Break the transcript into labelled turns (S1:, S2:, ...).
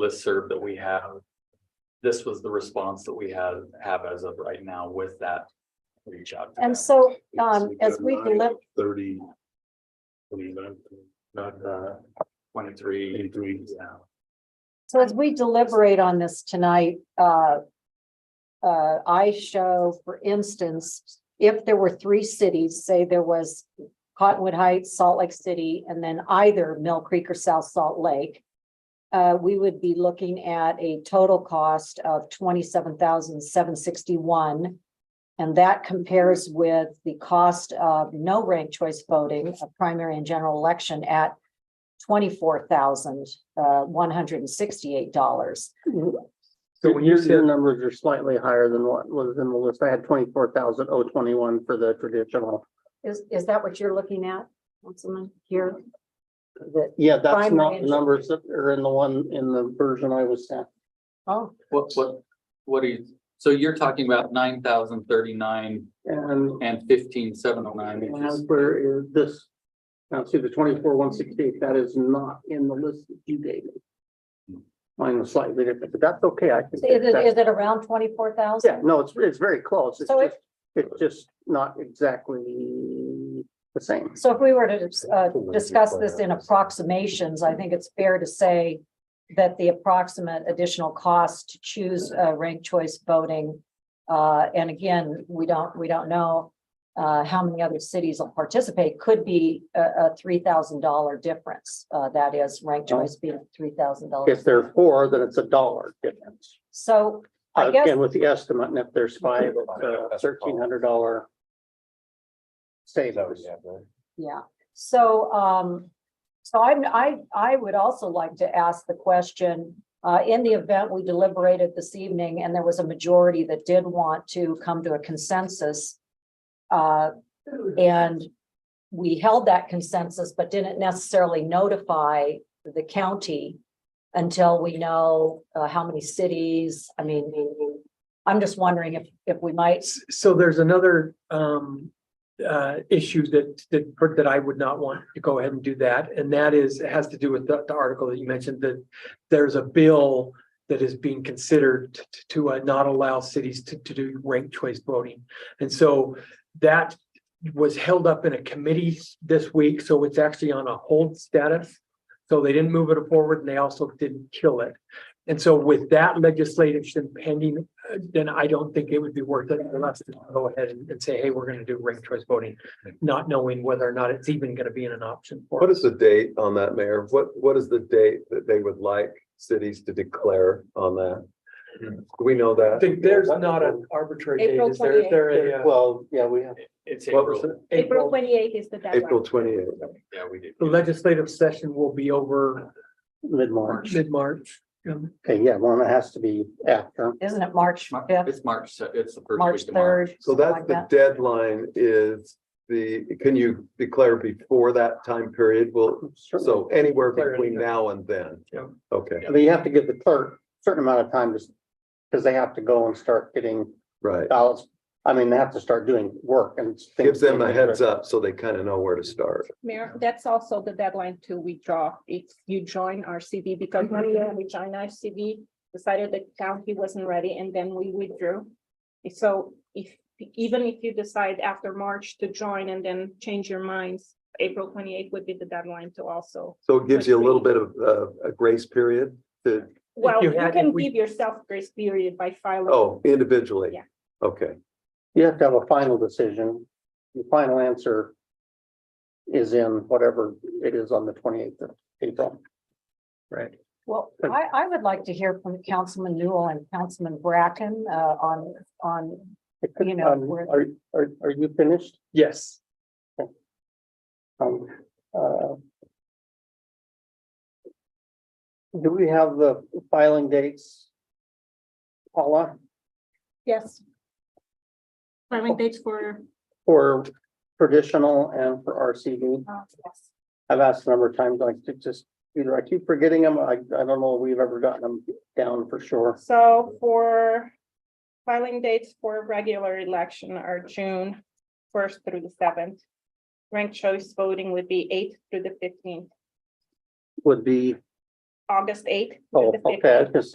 S1: listserv that we have. This was the response that we have, have as of right now with that reach out. to them.
S2: And so, um, as we deliver,
S3: Thirty. Twenty-nine,
S1: Not, uh, twenty-three,
S3: eighty-three.
S1: yeah.
S2: so as we deliberate on this tonight, uh. Uh, I show, for instance, if there were three cities, say there was Cottonwood Heights, Salt Lake City, and then either Mill Creek or South Salt Lake. Uh, we would be looking at a total cost of twenty-seven thousand seven sixty-one. And that compares with the cost of no ranked choice voting, a primary and general election at twenty-four thousand uh, one hundred and sixty-eight dollars.
S4: So when you see the numbers are slightly higher than what was in the list. I had twenty-four thousand oh twenty-one for the traditional.
S2: Is, is that what you're looking at, Councilman, here? That,
S4: Yeah, that's
S2: Primary
S4: not the
S2: and-
S4: numbers that are in the one in the version I was sent.
S2: oh,
S1: What, what, what are you, so you're talking about nine thousand thirty-nine
S4: And
S1: and fifteen seven oh nine, which is
S4: and where is this? Now, see the twenty-four one sixty-eight, that is not in the list that you gave me. Mine was slightly different, but that's okay. I
S2: is
S4: think.
S2: it,
S4: that-
S2: is it around twenty-four thousand?
S4: Yeah, no, it's, it's very close. It's
S2: So
S4: just, it's just not exactly the same.
S2: So if we were to, uh, discuss this in approximations, I think it's fair to say that the approximate additional cost to choose, uh, ranked choice voting, uh, and again, we don't, we don't know, uh, how many other cities will participate, could be a, a three thousand dollar difference. Uh, that is ranked choice being three thousand
S4: If
S2: dollars.
S4: there are four, then it's a dollar difference.
S2: So I guess-
S4: Uh, Again, with the estimate, and if there's five, thirteen hundred dollar. Savings.
S2: Yeah, so, um, so I'm, I, I would also like to ask the question, uh, in the event we deliberated this evening and there was a majority that did want to come to a consensus, uh, and we held that consensus, but didn't necessarily notify the county until we know, uh, how many cities, I mean, I'm just wondering if, if we might,
S5: S- So there's another um uh issue that that that I would not want to go ahead and do that, and that is, it has to do with the the article that you mentioned, that there's a bill that is being considered t- t- to uh, not allow cities to to do ranked choice voting. And so that was held up in a committee this week, so it's actually on a hold status. So they didn't move it forward and they also didn't kill it. And so with that legislation pending uh, then I don't think it would be worth it for us to go ahead and and say, hey, we're gonna do ranked choice voting, not knowing whether or not it's even gonna be an option for
S6: What
S5: us.
S6: is the date on that, Mayor? What, what is the date that they would like cities to declare on that? Do we know
S5: I
S6: that?
S5: think there's not an arbitrary date,
S7: April
S5: is there? Is there? a, uh,
S4: Well, yeah, we have.
S1: it's
S6: What was
S1: April.
S7: April
S5: April,
S7: twenty eighth is the
S6: April
S7: deadline.
S6: twenty-eighth.
S1: Yeah, we did.
S5: the legislative session will be over
S4: Mid-March.
S5: mid-March. Um,
S4: Okay, yeah, one that has to be after.
S2: isn't it March
S1: Mar-
S2: fifth,
S1: It's March, se- it's the first
S2: March
S1: week of March.
S2: third?
S6: So that's the deadline is the, can you declare before that time period? Well, so anywhere
S5: Declare
S6: between
S5: anything.
S6: now and then.
S5: Yeah.
S6: Okay,
S4: But you have to give the clerk a certain amount of time just because they have to go and start getting
S6: right.
S4: ballots. I mean, they have to start doing work and. things-
S6: Gives them a heads up so they kind of know where to start.
S7: Mayor, that's also the deadline to withdraw if you join RCV because
S5: Mm-hmm.
S7: one year we joined RCV, decided the county wasn't ready and then we withdrew. So if, even if you decide after March to join and then change your minds, April twenty eighth would be the deadline to also.
S6: So it gives you a little bit of, uh, a grace period to,
S7: Well,
S5: you
S7: you
S5: had-
S7: can
S5: if we-
S7: give yourself grace period by filing.
S6: oh, individually?
S7: Yeah.
S6: Okay,
S4: You have to have a final decision. The final answer is in whatever it is on the twenty-eighth of April.
S2: Well, I, I would like to hear from Councilman Newell and Councilman Bracken, uh, on, on, You know,
S4: Um,
S2: we're-
S4: Are, are, are you finished?
S5: Yes,
S4: Um, uh, Do we have the filing dates? Paula,
S7: Yes. Filing dates for.
S4: for traditional and for RCD?
S7: uh, yes.
S4: I've asked a number of times, like, to just, either I keep forgetting them, I, I don't know if we've ever gotten them down for sure.
S7: So for filing dates for regular election are June first through the seventh. Ranked choice voting would be eighth through the fifteenth.
S4: Would be
S8: August eighth.
S7: Oh, okay, I was gonna say,